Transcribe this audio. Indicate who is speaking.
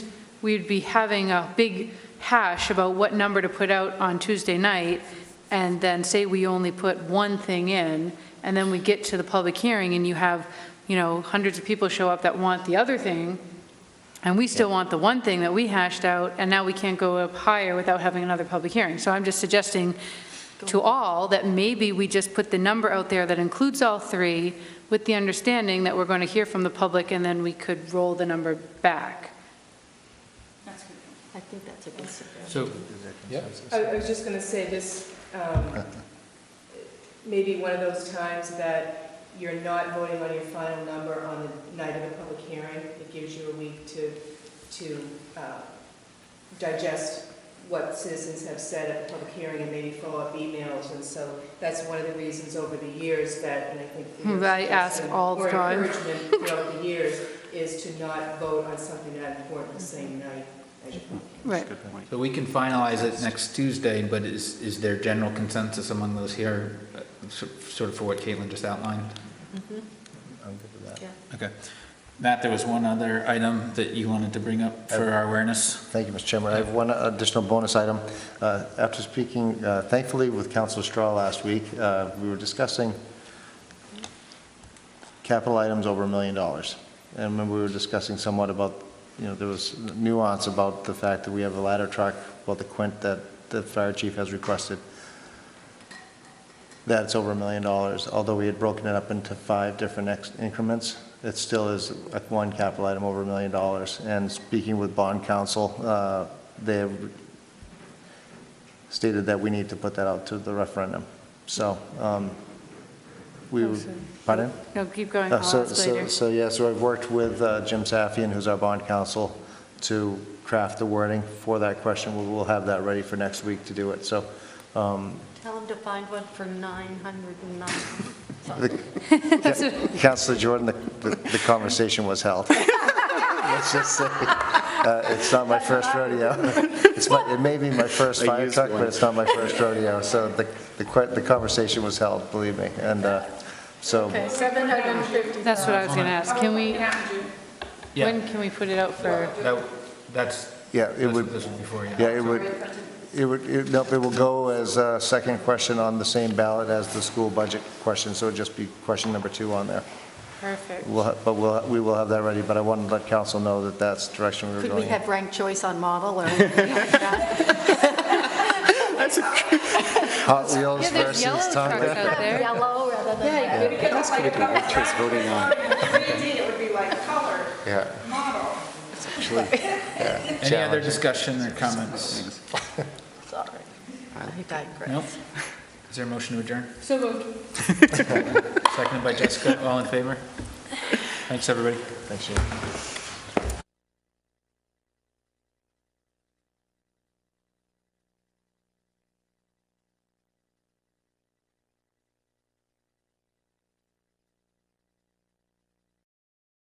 Speaker 1: we'd be having a big hash about what number to put out on Tuesday night, and then say we only put one thing in, and then we get to the public hearing, and you have, you know, hundreds of people show up that want the other thing, and we still want the one thing that we hashed out, and now we can't go up higher without having another public hearing. So I'm just suggesting to all that maybe we just put the number out there that includes all three, with the understanding that we're going to hear from the public, and then we could roll the number back.
Speaker 2: I think that's a good suggestion.
Speaker 3: So, yeah,
Speaker 4: I I was just going to say this, um, maybe one of those times that you're not voting on your final number on the night of the public hearing. It gives you a week to, to uh, digest what citizens have said at the public hearing and maybe follow up emails. And so that's one of the reasons over the years that, and I think. your
Speaker 1: Hmm, I ask
Speaker 4: suggestion
Speaker 1: all the time.
Speaker 4: Or encouragement throughout the years is to not vote on something that important the same night as your public
Speaker 1: Right.
Speaker 3: so we can finalize it next Tuesday, but is, is there general consensus among those here, uh, so- sort of for what Caitlin just outlined?
Speaker 5: I'm good with that.
Speaker 2: Mm-hmm. Yeah.
Speaker 3: Okay. Matt, there was one other item that you wanted to bring up for our awareness.
Speaker 5: Thank you, Mr. Chairman. I have one additional bonus item. Uh, After speaking uh, thankfully with Councilor Straw last week, uh, we were discussing capital items over a million dollars. And when we were discussing somewhat about, you know, there was nuance about the fact that we have a ladder truck, well, the Quint that the fire chief has requested, that's over a million dollars. Although we had broken it up into five different ex- increments, it still is a- one capital item over a million dollars. And speaking with bond counsel, uh, they have stated that we need to put that out to the referendum. So, um, we, would- pardon?
Speaker 1: No, keep going, I'll
Speaker 5: Uh, So,
Speaker 1: ask
Speaker 5: so,
Speaker 1: later.
Speaker 5: so, yeah, so I've worked with uh, Jim Safian, who's our bond counsel, to craft the wording for that question. We'll, we'll have that ready for next week to do it. So, um,
Speaker 2: Tell them to find one for 909.
Speaker 5: the- Counselor Jordan, the, the- the conversation was held. Let's just say, uh, it's not my first rodeo. It's my, it may be my first fire truck, but it's not my first rodeo. So the, the, que- the conversation was held, believe me. And, uh, so,
Speaker 1: That's what I was going to ask. Can we,
Speaker 3: Yeah,
Speaker 1: when can we put it out for,
Speaker 3: that, that's,
Speaker 5: yeah, it
Speaker 3: that's
Speaker 5: would.
Speaker 3: what this was before, yeah.
Speaker 5: Yeah, it would, it would, it- nope, it will go as a second question on the same ballot as the school budget question, so it'd just be question number two on there.
Speaker 1: perfect?
Speaker 5: We'll, ha- but we'll, we will have that ready, but I wanted to let council know that that's the direction we were
Speaker 2: Could we
Speaker 5: going. in.
Speaker 2: have ranked choice on model or anything like that?
Speaker 5: Hot Wheels
Speaker 1: Yeah, there's
Speaker 5: versus
Speaker 1: yellow trucks
Speaker 5: Tonka.
Speaker 1: out there.
Speaker 2: Yellow rather than
Speaker 6: Yeah,
Speaker 2: red?
Speaker 6: you could look like a color. Choice voting on. It would be like color
Speaker 5: Yeah.
Speaker 6: model.
Speaker 3: Any other discussion or comments?
Speaker 2: Sorry. I digress.
Speaker 3: Nope. Is there a motion to adjourn?
Speaker 1: So moved.
Speaker 3: Seconded by Jessica, all in favor? Thanks, everybody.
Speaker 5: Thanks, Jim.